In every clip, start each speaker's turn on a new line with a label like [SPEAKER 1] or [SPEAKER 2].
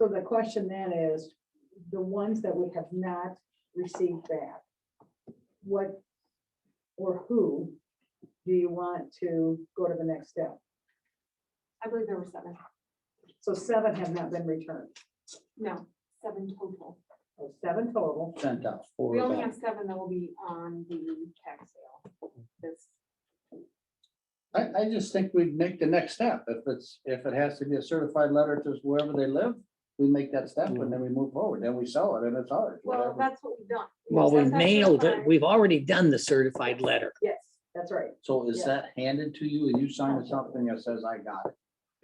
[SPEAKER 1] So the question then is, the ones that we have not received back, what or who do you want to go to the next step?
[SPEAKER 2] I believe there were seven.
[SPEAKER 1] So seven have not been returned,
[SPEAKER 2] No, seven total.
[SPEAKER 1] so seven total.
[SPEAKER 3] sent out four
[SPEAKER 2] We
[SPEAKER 3] of
[SPEAKER 2] only
[SPEAKER 3] them.
[SPEAKER 2] have seven that will be on the tax sale. This,
[SPEAKER 3] I, I just think we'd make the next step. If it's, if it has to be a certified letter to wherever they live, we make that step and then we move forward, then we sell it and it's ours.
[SPEAKER 2] well,
[SPEAKER 3] whatever.
[SPEAKER 2] that's what we've done.
[SPEAKER 4] Well, we
[SPEAKER 2] Since that's
[SPEAKER 4] mailed it.
[SPEAKER 2] certified-
[SPEAKER 4] We've already done the certified letter.
[SPEAKER 1] Yes, that's right.
[SPEAKER 3] So is
[SPEAKER 1] yeah.
[SPEAKER 3] that handed to you and you sign something that says, I got it?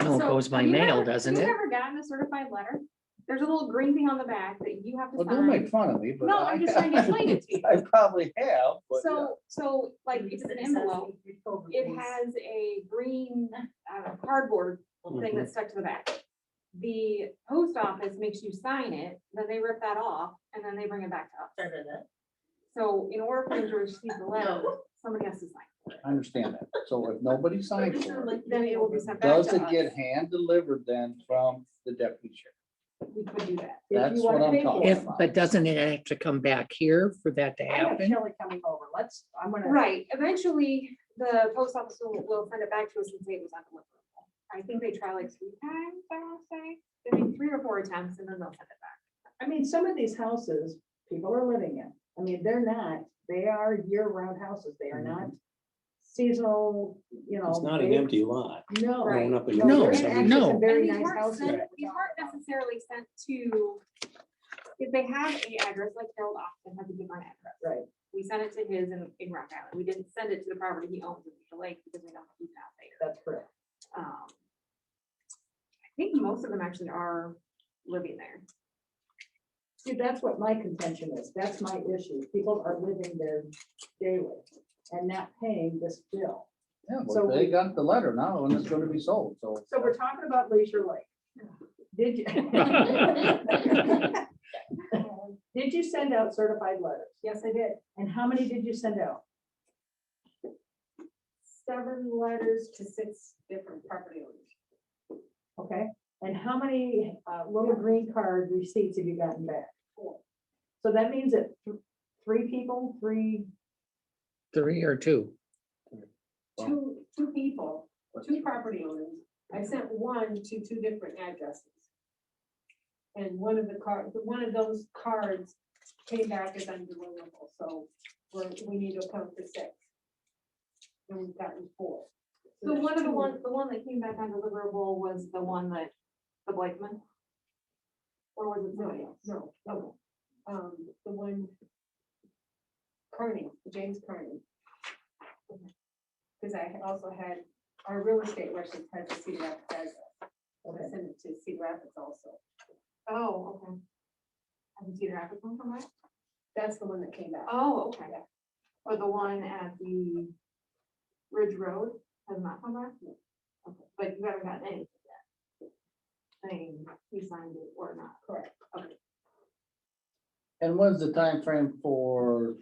[SPEAKER 4] No, it
[SPEAKER 2] So,
[SPEAKER 4] goes by
[SPEAKER 2] have you
[SPEAKER 4] mail,
[SPEAKER 2] ever-
[SPEAKER 4] doesn't
[SPEAKER 2] Have
[SPEAKER 4] it?
[SPEAKER 2] you ever gotten a certified letter? There's a little green thing on the back that you have to
[SPEAKER 3] Well, don't make
[SPEAKER 2] sign.
[SPEAKER 3] fun of me, but.
[SPEAKER 2] No, I'm just trying to explain it to you.
[SPEAKER 3] I probably have, but yeah.
[SPEAKER 2] So, so like it's an envelope. It has a green uh, cardboard
[SPEAKER 4] Mm-hmm.
[SPEAKER 2] thing that's stuck to the back. The post office makes you sign it, then they rip that off and then they bring it back to us. So in order for them to receive the letter, somebody has to sign.
[SPEAKER 3] I understand that. So if nobody signs for it,
[SPEAKER 2] Then it will be sent back to us.
[SPEAKER 3] does it get hand delivered then from the deputy sheriff?
[SPEAKER 2] We could do that.
[SPEAKER 1] If you
[SPEAKER 3] That's
[SPEAKER 1] wanna
[SPEAKER 3] what I'm
[SPEAKER 1] pay for it.
[SPEAKER 3] talking
[SPEAKER 4] If,
[SPEAKER 3] about.
[SPEAKER 4] but doesn't it have to come back here for that to
[SPEAKER 1] I have
[SPEAKER 4] happen?
[SPEAKER 1] Kelly coming over, let's, I'm gonna.
[SPEAKER 2] Right, eventually, the post office will, will send it back to us and say it was undeliverable. I think they try like three times, I want to say, they make three or four attempts and then they'll send it back.
[SPEAKER 1] I mean, some of these houses, people are living in, I mean, they're not, they are year-round houses, they are not seasonal, you know.
[SPEAKER 5] Mm-hmm. It's not an
[SPEAKER 1] they-
[SPEAKER 5] empty lot.
[SPEAKER 1] No.
[SPEAKER 2] Right.
[SPEAKER 5] Going up in
[SPEAKER 1] No,
[SPEAKER 4] No,
[SPEAKER 1] they're
[SPEAKER 5] years, I
[SPEAKER 1] actually
[SPEAKER 5] mean,
[SPEAKER 4] no.
[SPEAKER 1] some Very
[SPEAKER 2] And these
[SPEAKER 1] nice
[SPEAKER 2] weren't
[SPEAKER 1] houses.
[SPEAKER 2] sent-
[SPEAKER 1] that we
[SPEAKER 2] These
[SPEAKER 1] talked
[SPEAKER 2] weren't
[SPEAKER 1] about.
[SPEAKER 2] necessarily sent to, if they had a address, like Harold Austin had to give an address.
[SPEAKER 1] Right,
[SPEAKER 2] We sent it to his in, in Rock Island. We didn't send it to the property he owns in Leash Lake because we don't keep that there.
[SPEAKER 1] that's correct.
[SPEAKER 2] Um, I think most of them actually are living there.
[SPEAKER 1] See, that's what my contention is, that's my issue, people are living there daily and not paying this bill.
[SPEAKER 3] Yeah,
[SPEAKER 1] So
[SPEAKER 3] but they
[SPEAKER 1] we-
[SPEAKER 3] got the letter now and it's gonna be sold, so.
[SPEAKER 1] So we're talking about Leisure Lake. Did you? Did you send out certified letters? Yes, I did. And how many did you send out?
[SPEAKER 6] seven letters to six different property owners.
[SPEAKER 1] Okay, and how many uh, little green card receipts have you gotten back? So that means that th- three people, three,
[SPEAKER 4] Three or two?
[SPEAKER 3] Wow.
[SPEAKER 6] Two, two people, two property owners. I sent one to two different addresses. And one of the cards, one of those cards came back as undeliverable, so we're, we need to count for six. And we've gotten four.
[SPEAKER 2] So
[SPEAKER 6] there's
[SPEAKER 2] one of the
[SPEAKER 6] two.
[SPEAKER 2] ones, the one that came back undeliverable was the one that, the Blakeman? Or was it somebody
[SPEAKER 6] No,
[SPEAKER 2] else?
[SPEAKER 6] no, no. Um, the one. Carney, James Carney. Cause I had also had, our real estate license had the Cedar Rapids address, so I
[SPEAKER 1] Okay.
[SPEAKER 6] sent it to Cedar Rapids also.
[SPEAKER 2] Oh, okay. I can see the graphic one from that.
[SPEAKER 6] That's the one that came back.
[SPEAKER 2] Oh, okay. Or the one at the Ridge Road has not come back? Okay, But you haven't gotten any of that. Saying he signed it or not.
[SPEAKER 6] Correct.
[SPEAKER 3] And when's the time frame for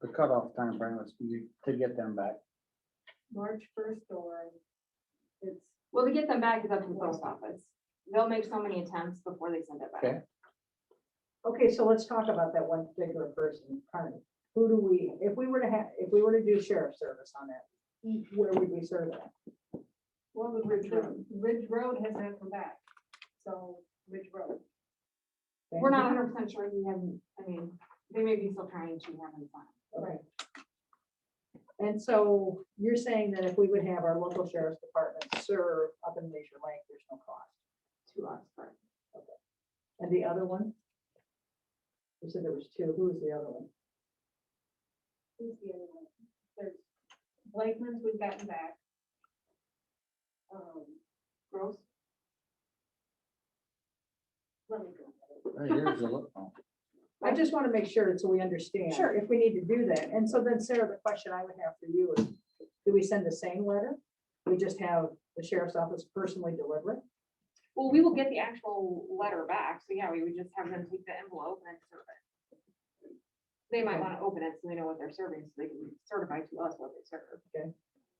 [SPEAKER 3] the cutoff time frame is you- to get them back?
[SPEAKER 6] March first or it's,
[SPEAKER 2] Well, to get them back is up to the post office. They'll make so many attempts before they send it
[SPEAKER 3] Okay.
[SPEAKER 2] back.
[SPEAKER 1] okay, so let's talk about that one particular person, Carney. Who do we, if we were to have, if we were to do sheriff's service on it, where would we serve that?
[SPEAKER 6] well, the Ridge Road, Ridge Road has not come back. So Ridge Road,
[SPEAKER 2] We're not hundred percent sure he hasn't, I mean, they may be still trying to have him sign.
[SPEAKER 1] Right. And so you're saying that if we would have our local sheriff's department serve up in Leisure Lake, there's no cost.
[SPEAKER 2] to us, but
[SPEAKER 1] And the other one? You said there was two. Who was the other one?
[SPEAKER 6] who's the other one? There's Blakeman's we've gotten back. Um,
[SPEAKER 2] gross.
[SPEAKER 6] let me go.
[SPEAKER 3] Hey, here's a look. oh,
[SPEAKER 1] I just want to make sure so we understand.
[SPEAKER 2] Sure.
[SPEAKER 1] If we need to do that. And so then Sarah, the question I would have for you is, do we send the same letter? We just have the sheriff's office personally deliver it?
[SPEAKER 2] Well, we will get the actual letter back, so yeah, we would just have them take the envelope and serve it. They might want to open it so they know what they're serving, so they can certify to us what they serve.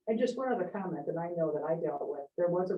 [SPEAKER 1] And just one other comment that I know that I dealt with, there was a